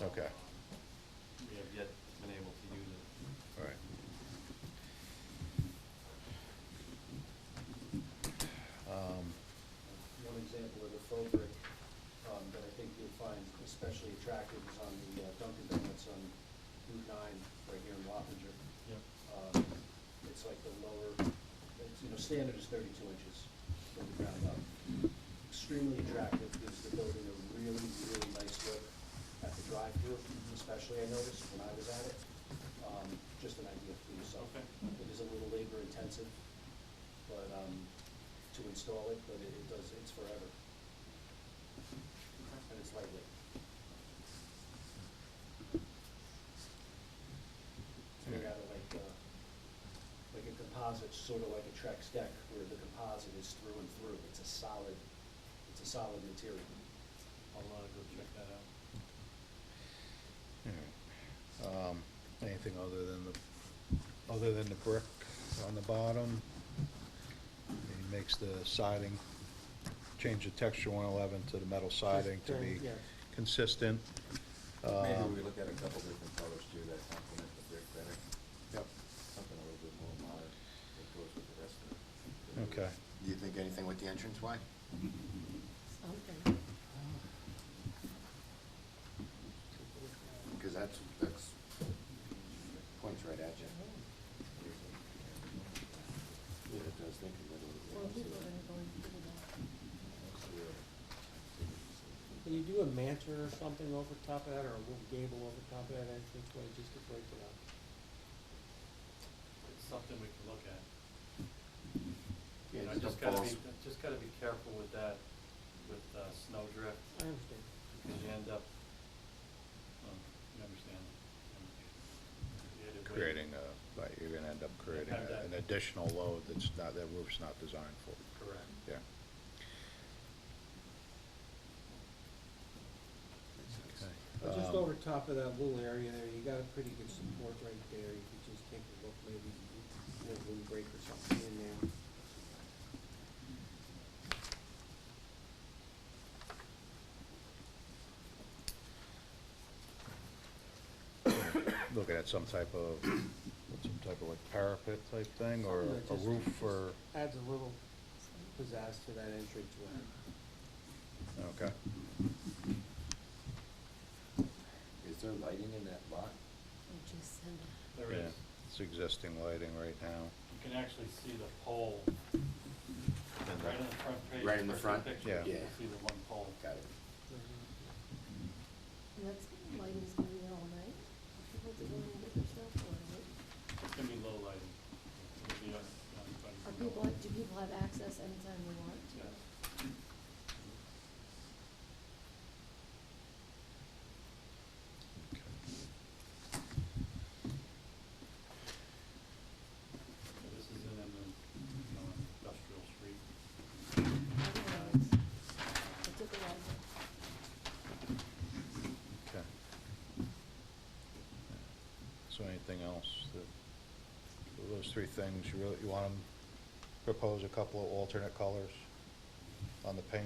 Okay, um, We have yet been able to use it. all right. Um, One example of the faux brick um, that I think you'll find especially attractive is on the uh, Dunkin' Donuts on Route 9, right here in Wappinger. Yep. Um, It's like the lower, it's, you know, standard is 32 inches from the ground up. Extremely attractive, gives the building a really, really nice look at the drive-through, especially I noticed when I was at it. Um, Just an idea for yourself. Okay. It is a little labor-intensive, but, um, to install it, but it it does, it's forever, and it's lightweight. It's made out of like, uh, like a composite, sort of like a Trex deck, where the composite is through and through, it's a solid, it's a solid material. I'll, uh, go check that out. all right. Um, Anything other than the, other than the brick on the bottom? He makes the siding, change the texture one eleven to the metal siding to be Yeah. consistent. Maybe Um, we look at a couple different colors too that complement the brick better, Yep. something a little bit more modern that goes with the rest of it. Okay. Do you think anything with the entrance way? Something. Because that's, that's, points right at you. Yeah, it does think a little. Well, people are gonna go and do Can you do a mantra or something over top of that, or a little gable over top of that entranceway, just to break it up? It's something we can look at. Yeah, And I just just a gotta be, I false- just gotta be careful with that, with, uh, snow drift, I understand. because you end up, um, you understand. um, you had to wait. Creating a, like, you're gonna end up creating Have a- that. an additional load that's not, that roof's not designed for, Correct. yeah. But just Um, over top of that little area there, you got a pretty good support right there, you could just take a look, maybe, you know, wind break or something in there. looking at some type of, some type of like parapet type thing, or Something that a just- roof, or, Adds a little pizzazz to that entranceway. okay. Is there lighting in that lot? Or just send a- There Yeah, is, It's existing lighting right now. you can actually see the pole And right that- on the front page. Right in the first front? picture, Yeah. You Yeah. can see the one pole. Got it. Mm-hmm. and that's, lighting's gonna be there all night. People to go and get their stuff, or what? It's gonna be low lighting. It'll be, uh, um, are people, do people have access anytime they want to? Yeah. So This is in an, you know, an industrial street. I don't know, it's- It took a while. Okay. So anything else that, so those three things, you really, you want them, propose a couple of alternate colors on the paint?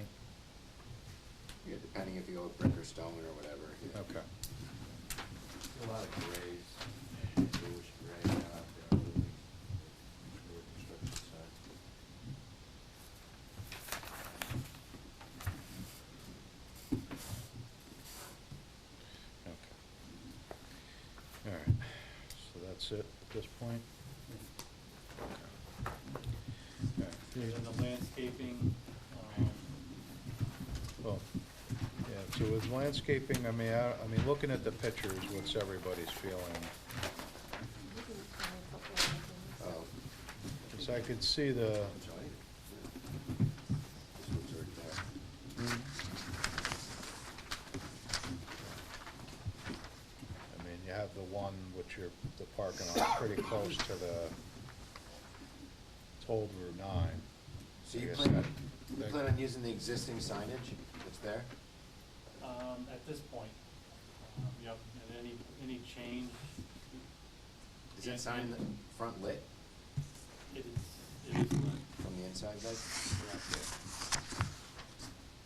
Yeah, depending if you go with brick or stone or whatever. yeah. Okay. A lot of grays, bluish gray out there, really, for the construction side. Okay. All right, so that's it at this point? Okay. And then the landscaping, um, Well, yeah, so with landscaping, I mean, I, I mean, looking at the pictures, what's everybody's feeling? You can try a couple of things. Oh, Cause I could see the, I'm sorry. Yeah. This one's already there. I mean, you have the one which you're, the parking lot pretty close to the told Route nine. So I you guess plan, that- you that- plan on using the existing signage that's there? um, at this point, um, yep, and any, any change, Is Yeah, that sign in the front lit it is, it is, lit. from the inside, guys? correct.